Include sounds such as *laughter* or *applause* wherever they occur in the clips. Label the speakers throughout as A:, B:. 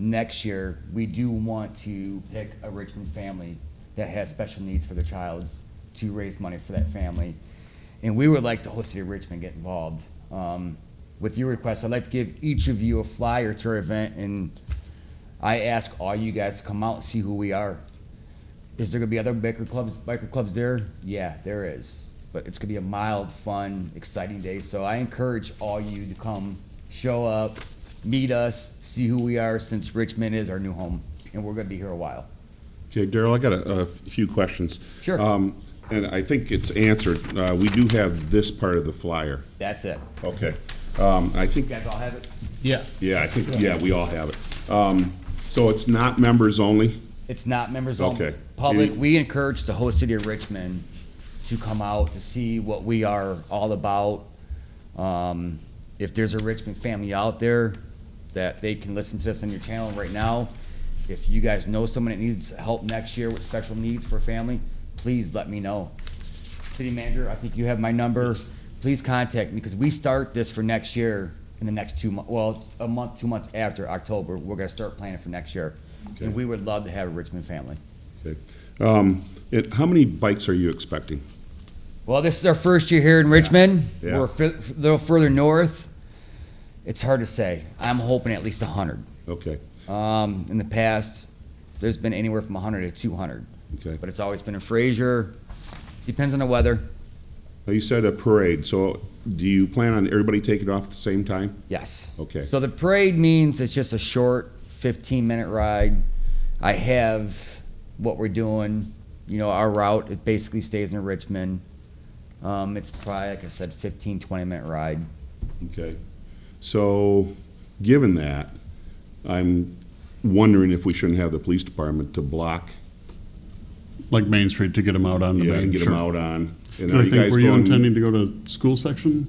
A: next year, we do want to pick a Richmond family that has special needs for their child to raise money for that family. And we would like the whole city of Richmond get involved. Um, with your request, I'd like to give each of you a flyer to our event, and I ask all you guys to come out and see who we are. Is there gonna be other biker clubs, biker clubs there? Yeah, there is. But it's gonna be a mild, fun, exciting day. So I encourage all you to come, show up, meet us, see who we are, since Richmond is our new home, and we're gonna be here a while.
B: Okay, Daryl, I got a, a few questions.
A: Sure.
B: Um, and I think it's answered. Uh, we do have this part of the flyer.
A: That's it.
B: Okay. Um, I think,
A: You guys all have it?
C: Yeah.
B: yeah, I think, yeah, we all have it. Um, so it's not members only?
A: It's not members only.
B: Okay.
A: Public,
B: You-
A: we encourage the whole city of Richmond to come out to see what we are all about. Um, if there's a Richmond family out there that they can listen to us on your channel right now, if you guys know someone that needs help next year with special needs for family, please let me know. City manager, I think you have my number. Please contact me because we start this for next year in the next two months. Well, it's a month, two months after October, we're gonna start planning for next year.
B: Okay.
A: And we would love to have a Richmond family.
B: Okay. Um, it, how many bikes are you expecting?
A: Well, this is our first year here in Richmond.
B: Yeah.
A: We're a fi- f- little further north. It's hard to say. I'm hoping at least 100.
B: Okay,
A: Um, in the past, there's been anywhere from 100 to 200,
B: okay.
A: but it's always been in Fraser. Depends on the weather.
B: Now, you said a parade, so do you plan on everybody taking off at the same time?
A: Yes.
B: Okay.
A: So the parade means it's just a short 15 minute ride. I have what we're doing. You know, our route, it basically stays in Richmond. Um, it's probably, like I said, 15, 20 minute ride.
B: Okay. So, given that, I'm wondering if we shouldn't have the police department to block
C: Like Main Street to get them out on the
B: Yeah,
C: main.
B: and get them
C: sure.
B: out on. And
C: And
B: are
C: I think,
B: guys
C: were you
B: going-
C: intending to go to school section?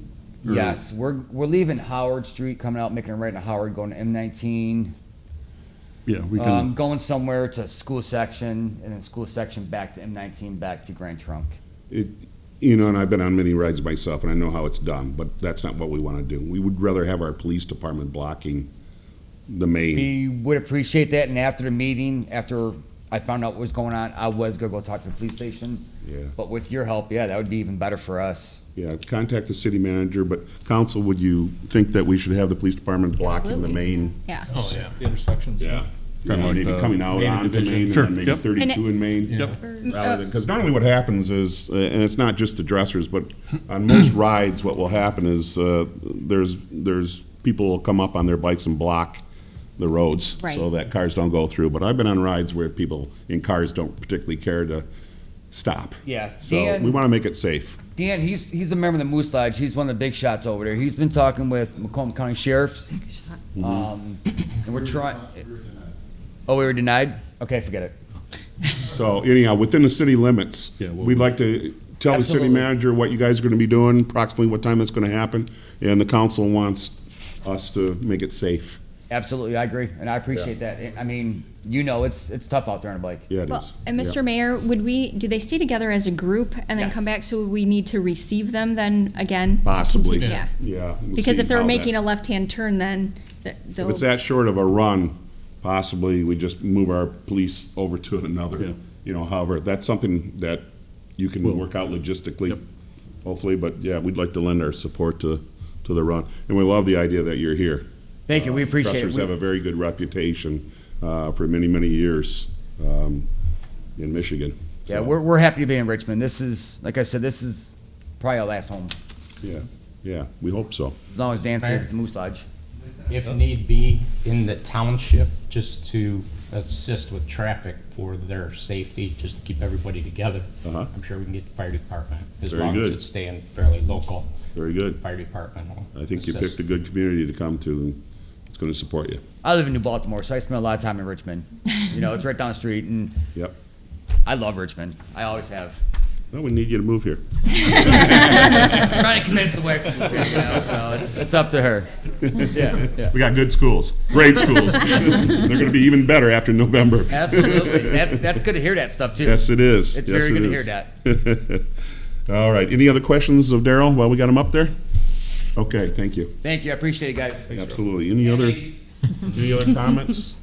C: Or-
A: Yes, we're, we're leaving Howard Street, coming out, making a right into Howard, going to M19,
C: Yeah, we
A: um,
C: can,
A: going somewhere to school section, and then school section back to M19, back to Grand Trunk.
B: It, you know, and I've been on many rides myself, and I know how it's done, but that's not what we want to do. We would rather have our police department blocking the main.
A: We would appreciate that, and after the meeting, after I found out what was going on, I was gonna go talk to the police station,
B: Yeah,
A: but with your help, yeah, that would be even better for us.
B: yeah, contact the city manager, but council, would you think that we should have the police department blocking the main?
D: Yeah.
E: Oh, yeah. The intersections.
B: Yeah. You
C: Kinda
B: know,
C: like
B: Maybe
C: the
B: coming out
C: main
B: onto
C: division.
B: Main and
C: Uh, Sure,
B: then maybe
C: yep.
B: thirty-two in Main.
E: Yeah.
D: Uh,
B: rather than, because normally what happens is, uh, and it's not just the dressers, but on
D: *clears throat*
B: most rides, what will happen is, uh, there's, there's, people will come up on their bikes and block the roads.
D: Right.
B: So that cars don't go through, but I've been on rides where people in cars don't particularly care to stop.
A: Yeah,
B: So we
A: Dan,
B: want to make it safe.
A: Dan, he's, he's a member of the Moose Lodge, he's one of the big shots over there, he's been talking with Macomb County Sheriff's,
B: Mm-hmm.
A: um, and we're trying. Oh, we were denied? Okay, forget it.
B: So anyhow, within the city limits,
C: Yeah, we'll-
B: we'd like to tell the city
A: Absolutely.
B: manager what you guys are going to be doing, approximately what time it's going to happen, and the council wants us to make it safe.
A: Absolutely, I agree, and I appreciate that. I- I mean, you know, it's it's tough out there on a bike.
B: Yeah, it
D: Well,
B: is.
D: and
B: Yeah.
D: Mr. Mayor, would we, do they stay together as a group and then
A: Yes.
D: come back? So we need to receive them then again? to
B: Possibly.
D: continue- Yeah.
B: Yeah. we'll
D: Because
B: see
D: if they're
B: how that-
D: making a left-hand turn, then th-
B: If
D: they'll,
B: it's that short of a run, possibly we just move our police over to
C: Yeah.
B: another, you know, however, that's something that you can work out logistically,
C: Yep.
B: hopefully, but yeah, we'd like to lend our support to, to the run. And we love the idea that you're here.
A: Thank
B: Uh,
A: you, we appreciate it.
B: Dressers have
A: We-
B: a very good reputation uh, for many, many years um, in Michigan.
A: Yeah,
B: So,
A: we're we're happy to be in Richmond. This is, like I said, this is probably our last home,
B: Yeah, yeah, we hope so.
A: as long as Dan stays at the Moose Lodge.
F: if need be, in the township, just to assist with traffic for their safety, just to keep everybody together.
B: Uh-huh.
F: I'm sure we can get the fire department, as
B: Very
F: long as
B: good.
F: it's staying fairly local,
B: Very good.
F: fire department will
B: I think you
F: assist.
B: picked a good community to come to, and it's going to support you.
A: I live in New Baltimore, so I spend a lot of time in Richmond. You know, it's right down the street, and
B: Yep.
A: I love Richmond. I always have.
B: No, we need you to move here.
A: I'm trying to convince the wife, to move here, you know, so it's it's up to her. Yeah, yeah.
B: We got good schools, great
A: *laughs*
B: schools. They're going to be even better after November.
A: Absolutely. That's that's good to hear that stuff too.
B: Yes, it is.
A: It's
B: Yes,
A: very
B: it
A: good to hear
B: is.
A: that.
B: All right. Any other questions of Daryl while we got him up there? Okay, thank you.
A: Thank you, I appreciate it, guys.
B: Absolutely. Any other, any other comments?